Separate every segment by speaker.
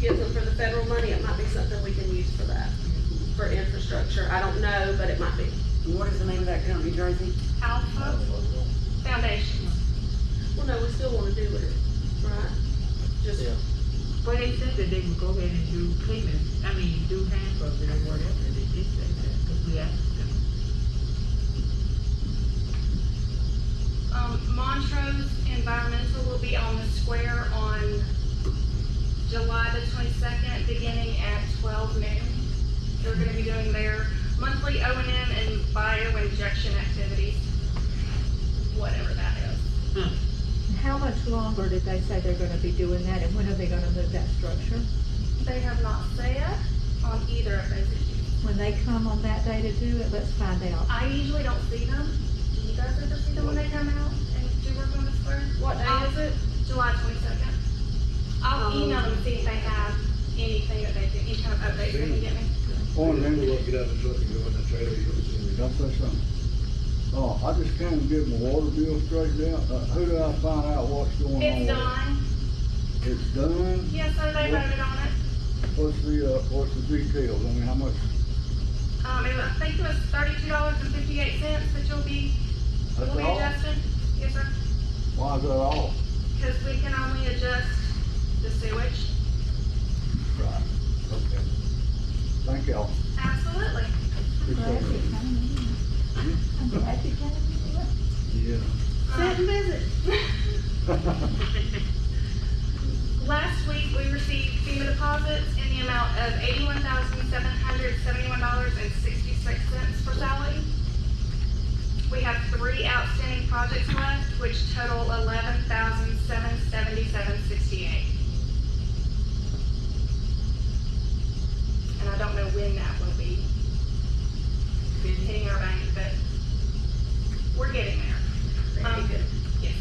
Speaker 1: gives them for the federal money, it might be something we can use for that, for infrastructure. I don't know, but it might be.
Speaker 2: What is the name of that company, Tracy?
Speaker 3: Alpha Foundation.
Speaker 1: Well, no, we still wanna do it, right? Just,
Speaker 4: Yeah.
Speaker 5: Well, they said that they would go ahead and do payments, I mean, do hand or whatever, they did say that, because we asked them.
Speaker 3: Um, Montrose Environmental will be on the square on July the twenty-second, beginning at twelve noon. They're gonna be doing their monthly O and M and bio injection activities, whatever that is.
Speaker 6: How much longer did they say they're gonna be doing that, and when are they gonna move that structure?
Speaker 3: They have not said on either of those issues.
Speaker 6: When they come on that day to do it, let's find out.
Speaker 3: I usually don't see them. Do you guys ever see them when they come out and do work on the square?
Speaker 1: what day is it?
Speaker 3: July twenty-second. I'll
Speaker 7: Um,
Speaker 3: email them, and see if they have anything that they, can- any kind of updates they can get me.
Speaker 7: On them,
Speaker 8: Look, get out of the truck and go in the trailer, you'll see
Speaker 7: I'll say something. Oh, I just can't get my water bill straightened out. Uh, who do I find out what's going on? with
Speaker 3: It's
Speaker 7: it?
Speaker 3: done.
Speaker 7: It's done?
Speaker 3: Yes, so they voted on it.
Speaker 7: What's the, uh, what's the details? I mean, how much,
Speaker 3: Um, it was, I think it was thirty-two dollars and fifty-eight cents that you'll be,
Speaker 7: that's
Speaker 3: will be
Speaker 7: all?
Speaker 3: adjusted. Yes, sir.
Speaker 7: Why is that all?
Speaker 3: Cause we can only adjust the sewage.
Speaker 7: Right, okay. Thank y'all.
Speaker 3: Absolutely.
Speaker 7: Appreciate
Speaker 6: Glad you
Speaker 7: it.
Speaker 6: came. I'm glad you came.
Speaker 7: Yeah.
Speaker 1: Sit and visit.
Speaker 3: Um, Last week, we received FEMA deposits in the amount of eighty-one thousand, seven hundred, seventy-one dollars and sixty-six cents for Sally. We have three outstanding projects left, which total eleven thousand, seven seventy-seven, sixty-eight. And I don't know when that will be hitting our bank, but we're getting there.
Speaker 1: Very good.
Speaker 3: Yes.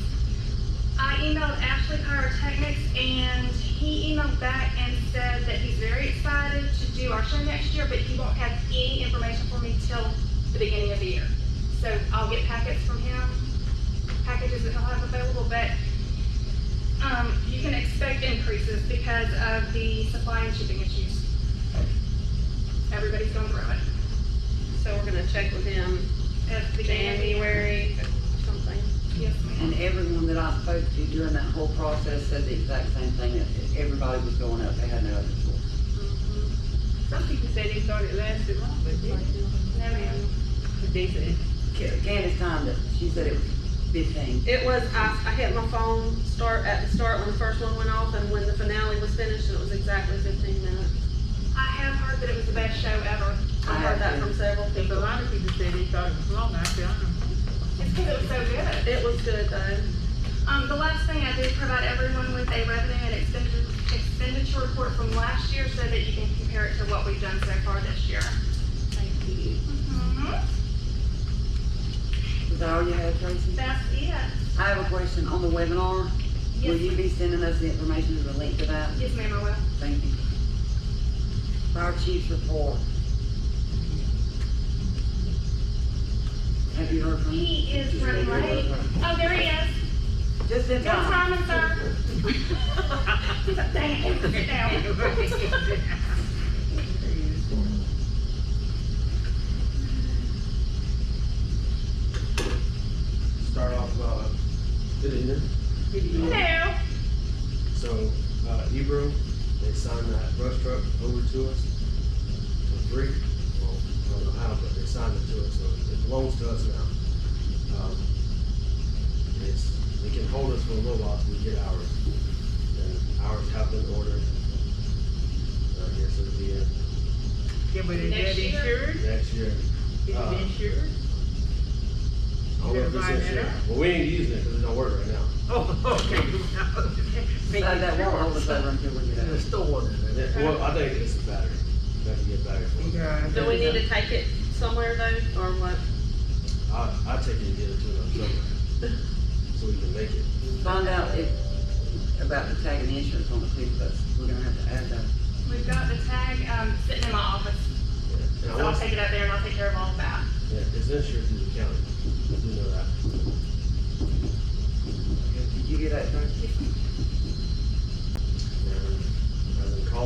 Speaker 3: I emailed Ashley Pyrotechnics and he emailed back and said that he's very excited to do our show next year, but he won't have any information for me till the beginning of the year. So I'll get packets from him, packages that he'll have available, but, um, you can expect increases because of the supply and shipping issues. Everybody's going through it.
Speaker 1: So we're gonna check with him
Speaker 3: At the beginning of the year.
Speaker 1: January or something.
Speaker 3: Yes, ma'am.
Speaker 2: And everyone that I spoke to during that whole process said the exact same thing, that everybody was going up, they had no other choice.
Speaker 5: Some people say they thought it lasted long, but they,
Speaker 3: No, ma'am.
Speaker 5: but they said,
Speaker 2: Ca- Candace timed it, she said it was fifteen.
Speaker 1: It was, I, I hit my phone start, at the start when the first one went off and when the finale was finished and it was exactly fifteen minutes.
Speaker 3: I have heard that it was the best show ever.
Speaker 1: I heard that from several
Speaker 5: if a
Speaker 1: people.
Speaker 5: lot of people say they thought it was long, I said, "Uh-huh." I don't know.
Speaker 3: It's because it was so good.
Speaker 1: It was good though.
Speaker 3: Um, the last thing I did provide everyone with a revenue and expenditure, expenditure report from last year so that you can compare it to what we've done so far this year.
Speaker 1: Thank you.
Speaker 3: Mm-hmm.
Speaker 2: Is that all you had, Tracy?
Speaker 3: That's it.
Speaker 2: I have a question on the webinar. Will you
Speaker 3: Yes,
Speaker 2: be sending us the information and the link to that?
Speaker 3: yes, ma'am, I will.
Speaker 2: Thank you. Fire chief's report. Have you heard from him?
Speaker 3: He is running late. Oh, there he is.
Speaker 2: Just in
Speaker 3: Good
Speaker 2: time.
Speaker 3: timing, sir. He's like, dang it, sit down.
Speaker 8: Start off, uh,
Speaker 4: Did it here?
Speaker 3: No.
Speaker 4: So, uh, Ebro, they signed that brush truck over to us for free. Well, I don't know how, but they signed it to us, so it belongs to us now. Um, It's, they can hold us for a little while till we get ours. And ours have been ordered. I guess it'll be in
Speaker 5: Yeah, but is
Speaker 3: Next
Speaker 5: that
Speaker 3: year?
Speaker 5: insured?
Speaker 4: next year.
Speaker 5: Is
Speaker 4: Uh,
Speaker 5: it insured?
Speaker 4: I don't know if it's
Speaker 5: They're buying
Speaker 4: this
Speaker 5: it
Speaker 4: year.
Speaker 5: up?
Speaker 4: Well, we ain't using it because it don't work right now.
Speaker 5: Oh, okay.
Speaker 2: So that won't hold us over until we get out.
Speaker 4: Yeah, Well, I think it's a battery. We have to get battery for it.
Speaker 5: Because-
Speaker 1: Do we need to take it somewhere though, or what?
Speaker 4: I, I take it and get it to them somewhere. So we can make it.
Speaker 2: Find out if, about the tag and insurance on the two buses. We're gonna have to add that.
Speaker 3: We've got the tag, um, sitting in my office,
Speaker 4: Yeah. And I
Speaker 3: so I'll
Speaker 4: want,
Speaker 3: take it up there and I'll take care of all of that.
Speaker 4: yeah, it's insured through